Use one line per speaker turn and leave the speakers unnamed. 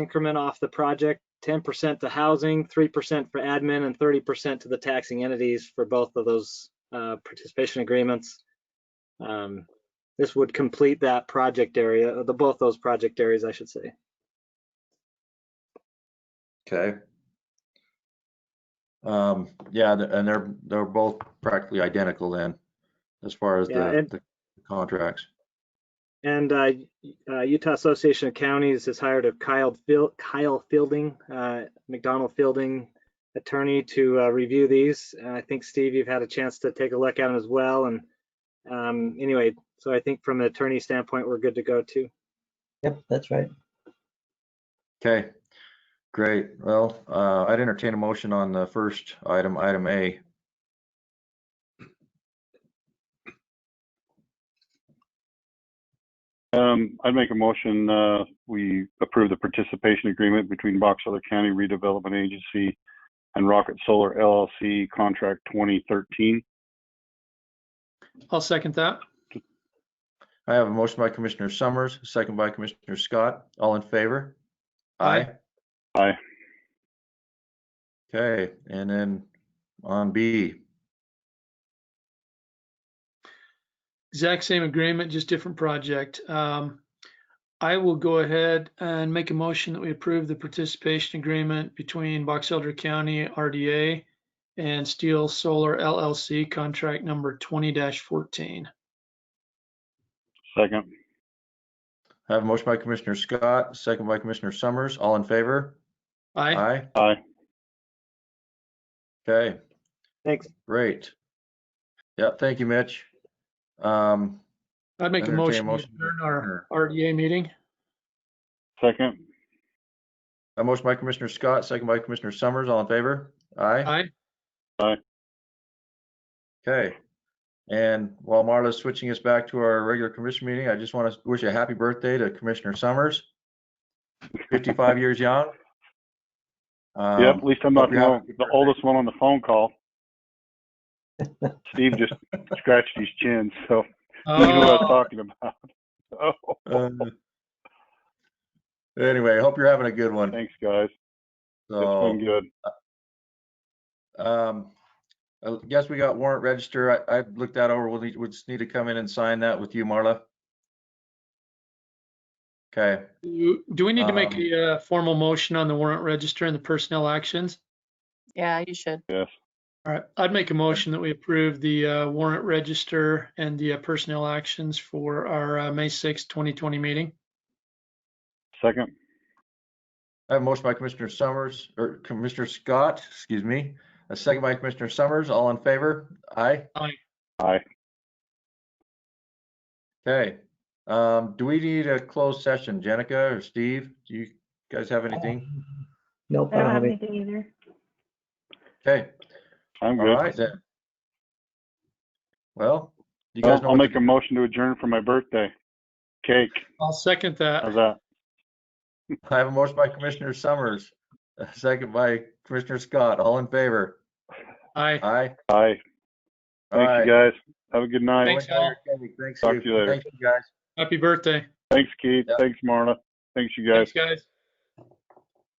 increment off the project, ten percent to housing, three percent for admin, and thirty percent to the taxing entities for both of those uh, participation agreements. Um, This would complete that project area, the, both those project areas, I should say.
Okay. Um, yeah, th- and they're, they're both practically identical then, as far as
Yeah,
the,
and-
the contracts.
And uh, uh, Utah Association of Counties has hired a Kyle Fiel- Kyle Fielding, uh, McDonald Fielding attorney to uh, review these. And I think, Steve, you've had a chance to take a look at them as well. And um, anyway, so I think from an attorney standpoint, we're good to go too.
Yep, that's right.
Okay, great. Well, uh, I'd entertain a motion on the first item, item A.
Um, I'd make a motion, uh, we approve the participation agreement between Box Elder County Redevelopment Agency and Rocket Solar LLC, contract twenty thirteen.
I'll second that.
I have a motion by Commissioner Summers, second by Commissioner Scott. All in favor?
Aye.
Aye.
Okay, and then on B,
Exact same agreement, just different project. Um, I will go ahead and make a motion that we approve the participation agreement between Box Elder County RDA and Steel Solar LLC, contract number twenty fourteen.
Second.
I have a motion by Commissioner Scott, second by Commissioner Summers. All in favor?
Aye,
Aye.
Aye.
Okay,
Thanks.
great. Yeah, thank you, Mitch. Um,
I'd make a
Entertain a
motion to
motion.
adjourn our RDA meeting.
Second.
a motion by Commissioner Scott, second by Commissioner Summers. All in favor? Aye.
Aye,
Okay. And while Marla's switching us back to our regular commission meeting, I just want to wish a happy birthday to Commissioner Summers. 55 years young.
Yep,
Um,
at least I'm not
hope you have a
the
good
the
birthday.
oldest one on the phone call. Steve just scratched his chin, so he knew what I was
Oh,
talking about. Oh,
uh, Anyway, hope you're having a good one.
thanks, guys.
So.
It's
Oh.
been good.
Um, I guess we got warrant register. I, I looked that over. We'll need, we just need to come in and sign that with you, Marla. Okay,
do do we need to make
Um,
a uh, formal motion on the warrant register and the personnel actions?
Yeah, you should.
Yes.
All right, I'd make a motion that we approve the uh, warrant register and the uh, personnel actions for our uh, May sixth, 2020 meeting.
Second.
I have a motion by Commissioner Summers, or Commissioner Scott, excuse me, a second by Commissioner Summers, all in favor? Aye?
Aye.
Okay, um, do we need a closed session, Jenica or Steve? Do you guys have anything?
Nope,
I don't have anything either.
Okay,
I'm
all
good.
right then. Well, you guys
Well,
know.
I'll
what
make
to
a motion to adjourn for my birthday. Cake.
I'll second
How's
that.
that?
do. I have a motion by Commissioner Summers, a second by Commissioner Scott, all in favor?
Aye.
Aye.
Aye.
Aye.
Thank you, guys. Have a good night.
Thanks, all.
Thanks,
Talk
Steve.
to you later.
Thank you, guys.
Happy birthday.
Thanks, Keith.
Yeah.
Thanks, Marla. Thanks, you guys.
Thanks, guys.